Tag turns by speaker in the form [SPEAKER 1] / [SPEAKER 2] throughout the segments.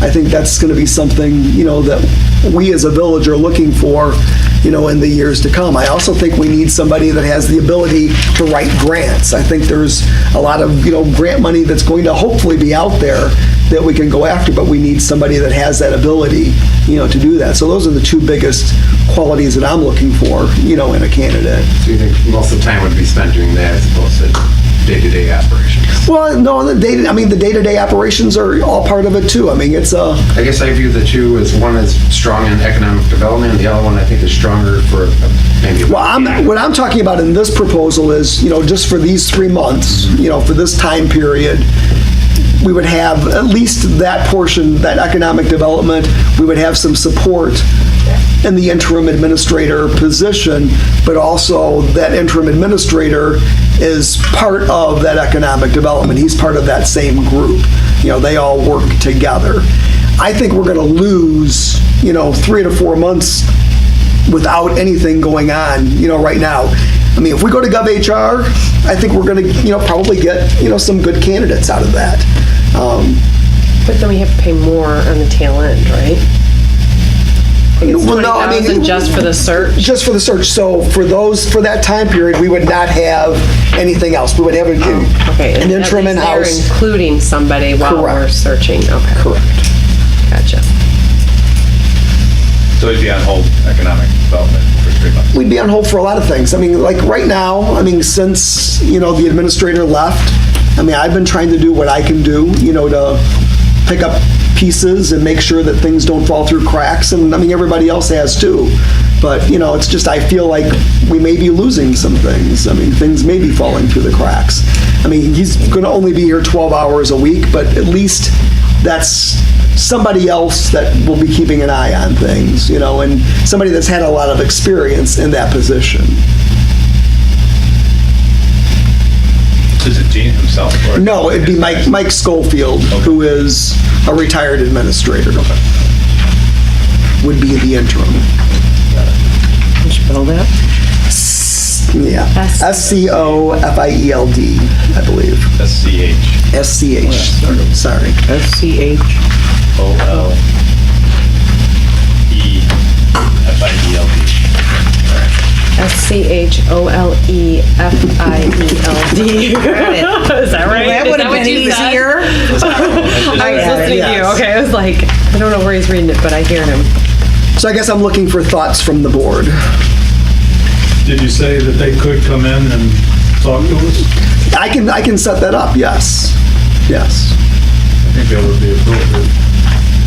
[SPEAKER 1] I think that's going to be something, you know, that we as a village are looking for, you know, in the years to come. I also think we need somebody that has the ability to write grants. I think there's a lot of, you know, grant money that's going to hopefully be out there that we can go after, but we need somebody that has that ability, you know, to do that. So those are the two biggest qualities that I'm looking for, you know, in a candidate.
[SPEAKER 2] Do you think most of the time would be spent doing that as opposed to day-to-day operations?
[SPEAKER 1] Well, no, the day, I mean, the day-to-day operations are all part of it too. I mean, it's a,
[SPEAKER 2] I guess I view the two as one is strong in economic development, and the other one I think is stronger for maybe.
[SPEAKER 1] Well, I'm, what I'm talking about in this proposal is, you know, just for these three months, you know, for this time period, we would have at least that portion, that economic development, we would have some support in the interim administrator position, but also that interim administrator is part of that economic development. He's part of that same group. You know, they all work together. I think we're going to lose, you know, three to four months without anything going on, you know, right now. I mean, if we go to GovHR, I think we're going to, you know, probably get, you know, some good candidates out of that. Um,
[SPEAKER 3] But then we have to pay more on the tail end, right?
[SPEAKER 1] well, no, I mean,
[SPEAKER 3] 20,000 just for the search.
[SPEAKER 1] Just for the search. So for those, for that time period, we would not have anything else. We would have a-
[SPEAKER 3] Oh, Okay.
[SPEAKER 1] an
[SPEAKER 3] at
[SPEAKER 1] interim
[SPEAKER 3] least they're
[SPEAKER 1] in-house.
[SPEAKER 3] Including somebody while we're
[SPEAKER 1] Correct.
[SPEAKER 3] searching. Okay.
[SPEAKER 1] Correct.
[SPEAKER 3] Gotcha.
[SPEAKER 4] So it'd be on hold economic development for three months.
[SPEAKER 1] we'd be on hold for a lot of things. I mean, like right now, I mean, since, you know, the administrator left, I mean, I've been trying to do what I can do, you know, to pick up pieces and make sure that things don't fall through cracks. And I mean, everybody else has too. But, you know, it's just, I feel like we may be losing some things. I mean, things may be falling through the cracks. I mean, he's going to only be here 12 hours a week, but at least that's somebody else that will be keeping an eye on things, you know, and somebody that's had a lot of experience in that position.
[SPEAKER 4] Is it Gene himself? or-
[SPEAKER 1] No, it'd be Mike, Mike Schofield, who is a retired administrator. Would be the interim.
[SPEAKER 3] Spell that.
[SPEAKER 1] Yeah.
[SPEAKER 3] S-
[SPEAKER 1] S C O F I E L D, I believe.
[SPEAKER 4] S-C-H-O-L.
[SPEAKER 1] S C H. Sorry.
[SPEAKER 3] FCH.
[SPEAKER 4] E. F I D L D.
[SPEAKER 3] E S-C-H-O-L-E-F-I-E-L-D. Is that right?
[SPEAKER 5] That
[SPEAKER 3] Is
[SPEAKER 5] would have
[SPEAKER 3] what
[SPEAKER 5] been
[SPEAKER 3] you said?
[SPEAKER 5] easier.
[SPEAKER 3] I was
[SPEAKER 5] Yeah,
[SPEAKER 3] listening to you.
[SPEAKER 1] yes.
[SPEAKER 3] Okay. I was like, I don't know where he's reading it, but I hear him.
[SPEAKER 1] So I guess I'm looking for thoughts from the board.
[SPEAKER 6] Did you say that they could come in and talk to us?
[SPEAKER 1] I can, I can set that up, yes. Yes.
[SPEAKER 6] I think that would be appropriate,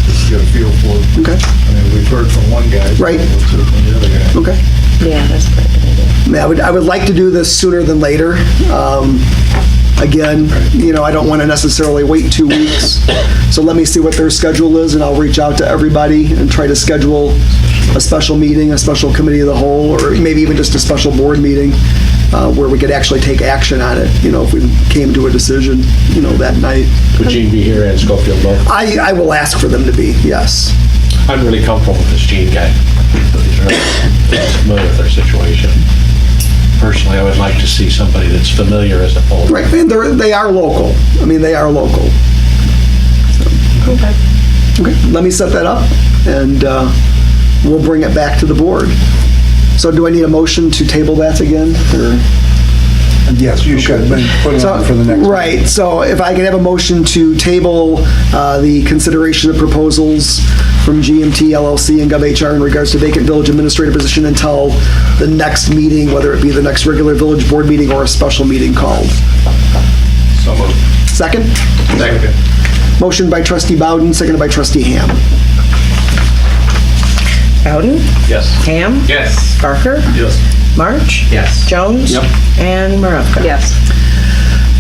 [SPEAKER 6] just to get a feel for it.
[SPEAKER 1] Okay,
[SPEAKER 6] I mean, we've heard from one guy.
[SPEAKER 1] Right.
[SPEAKER 6] Let's hear from the other guy.
[SPEAKER 1] okay.
[SPEAKER 3] Yeah, that's pretty good idea.
[SPEAKER 1] I mean, I would, I would like to do this sooner than later. Um, Again, you know, I don't want to necessarily wait two weeks, so let me see what their schedule is, and I'll reach out to everybody and try to schedule a special meeting, a special committee of the whole, or maybe even just a special board meeting uh, where we could actually take action on it, you know, if we came to a decision, you know, that night.
[SPEAKER 7] Would Gene be here and Schofield both?
[SPEAKER 1] I, I will ask for them to be, yes.
[SPEAKER 7] I'm really comfortable with this Gene guy. He's Familiar with our situation. Personally, I would like to see somebody that's familiar as a whole.
[SPEAKER 1] Right, and they're, they are local. I mean, they are local. Okay. Okay, let me set that up, and uh, we'll bring it back to the board. So do I need a motion to table that again, or?
[SPEAKER 8] Yes, you should, but put it on for the next.
[SPEAKER 1] Right, so if I could have a motion to table uh, the consideration of proposals from GMT LLC and GovHR in regards to vacant village administrator position until the next meeting, whether it be the next regular village board meeting or a special meeting called.
[SPEAKER 4] So moved.
[SPEAKER 1] Second?
[SPEAKER 4] Second.
[SPEAKER 1] Motion by trustee Bowden, seconded by trustee Ham.
[SPEAKER 5] Bowden,
[SPEAKER 4] Yes.
[SPEAKER 5] Ham,
[SPEAKER 4] Yes.
[SPEAKER 5] Barker,
[SPEAKER 4] Yes.
[SPEAKER 5] March,
[SPEAKER 2] Yes.
[SPEAKER 5] Jones, and Maravka.
[SPEAKER 3] Yes.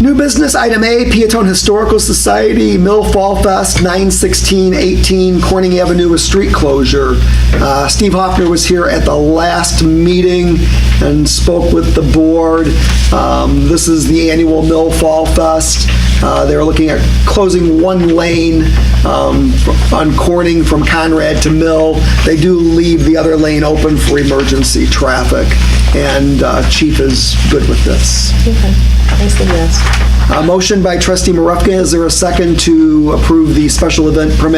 [SPEAKER 1] New business, item A, Peatone Historical Society, Mill Fall Fest, 91618 Corning Avenue with street closure. Uh, Steve Hoffner was here at the last meeting and spoke with the board. Um, This is the annual Mill Fall Fest. Uh, They're looking at closing one lane um, fr- on Corning from Conrad to Mill. They do leave the other lane open for emergency traffic, and uh, Chief is good with this.
[SPEAKER 3] Okay. I said yes.
[SPEAKER 1] A motion by trustee Marupka, is there a second to approve the special event permit